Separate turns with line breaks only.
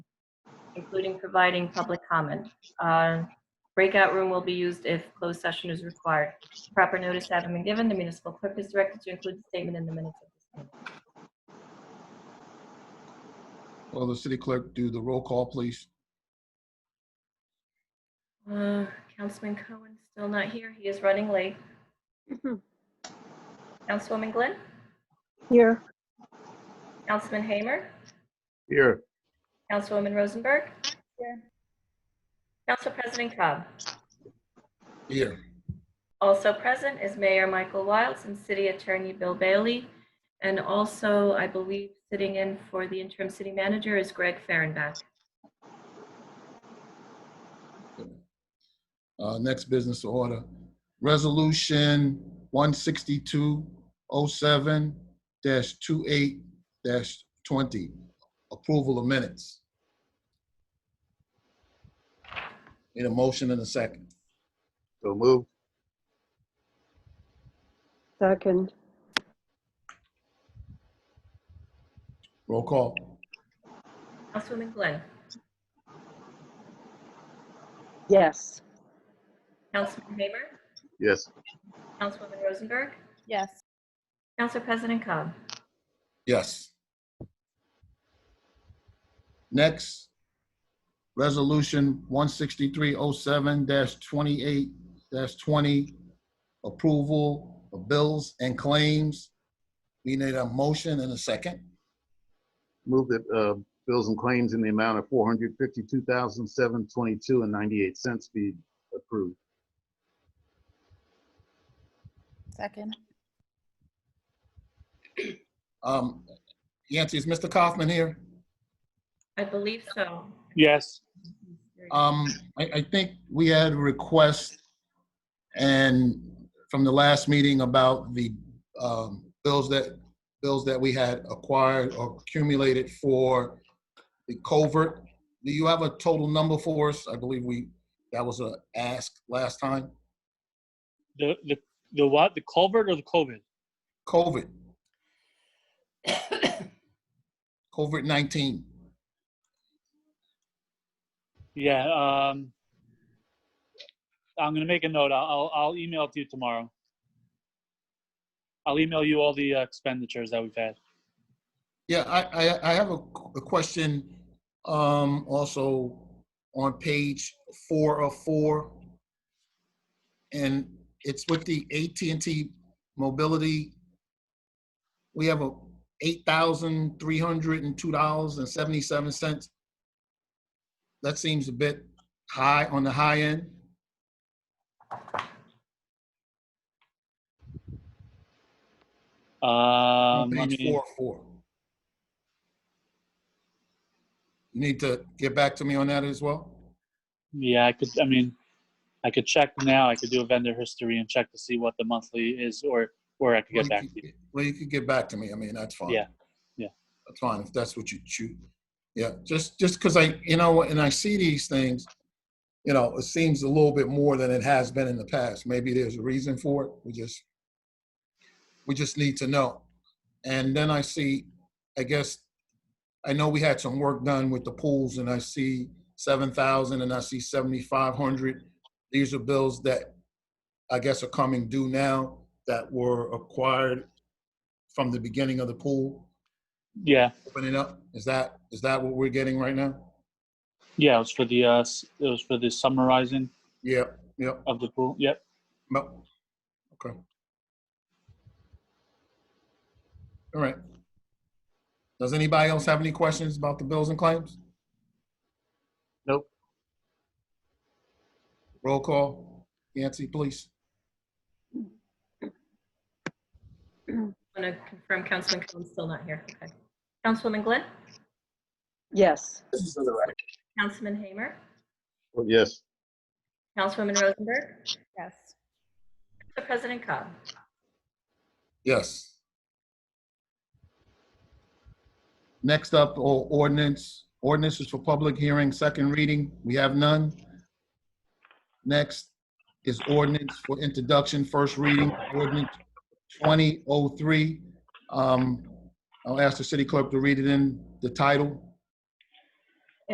including providing public comment. Uh, Breakout room will be used if closed session is required. Proper notice having been given, the municipal clerk is directed to include the statement in the minutes of this meeting.
Will the city clerk do the roll call, please?
Uh, Councilman Cohen still not here. He is running late. Councilwoman Glenn?
Here.
Councilman Hamer?
Here.
Councilwoman Rosenberg?
Here.
Council President Cobb?
Here.
Also present is Mayor Michael Wilds and City Attorney Bill Bailey. And also, I believe, sitting in for the interim city manager is Greg Fahrenbach.
Uh, Next business order, Resolution oh 16207-28-20, approval of minutes. Need a motion and a second.
So move.
Second.
Roll call.
Councilwoman Glenn?
Yes.
Councilman Hamer?
Yes.
Councilwoman Rosenberg?
Yes.
Council President Cobb?
Yes. Next, Resolution 16307-28-20, approval of bills and claims. We need a motion and a second.
Move that uh, bills and claims in the amount of four hundred fifty-two thousand seven twenty-two and ninety-eight cents be approved.
Second.
Um, Yancy, is Mr. Kaufman here?
I believe so.
Yes,
Um, I, I think we had a request and from the last meeting about the, um, bills that, bills that we had acquired or accumulated for the covert. Do you have a total number for us? I believe we, that was a ask last time.
the, the, the what, the culvert or the COVID?
COVID. COVID-19.
Yeah, um, I'm gonna make a note, I'll, I'll, I'll email it to you tomorrow. I'll email you all the uh, expenditures that we've had.
Yeah, I, I, I have a, a question, um, also on page four of four. And it's with the AT&T Mobility. We have a eight thousand three hundred and two dollars and seventy-seven cents. That seems a bit high on the high end.
Um,
On
I
page
mean,
four of four. You need to get back to me on that as well?
yeah, I could, I mean, I could check now, I could do a vendor history and check to see what the monthly is, or, or I could
Well,
get back
you
to
could
you.
get- Well, you could get back to me. I mean, that's fine.
Yeah, yeah.
That's fine if that's what you choose. Yeah, just, just because I, you know, and I see these things, you know, it seems a little bit more than it has been in the past. Maybe there's a reason for it. We just, we just need to know. And then I see, I guess, I know we had some work done with the pools and I see seven thousand and I see seventy-five hundred. These are bills that I guess are coming due now that were acquired from the beginning of the pool
Yeah,
opening up? Is that, is that what we're getting right now?
yeah, it was for the, uh, s- it was for the summarizing
Yep, yep,
of the pool, yep.
yep. Okay. All right. Does anybody else have any questions about the bills and claims?
Nope.
Roll call. Yancy, please.
I want to confirm Councilman Cohen's still not here. Okay. Councilwoman Glenn?
Yes.
Councilman Hamer?
Well, Yes.
Councilwoman Rosenberg?
Yes.
Council President Cobb?
Yes. Next up, o- ordinance. Ordinance is for public hearing, second reading. We have none. Next is ordinance for introduction, first reading, ordinance 2003. Um, I'll ask the city clerk to read it in the title.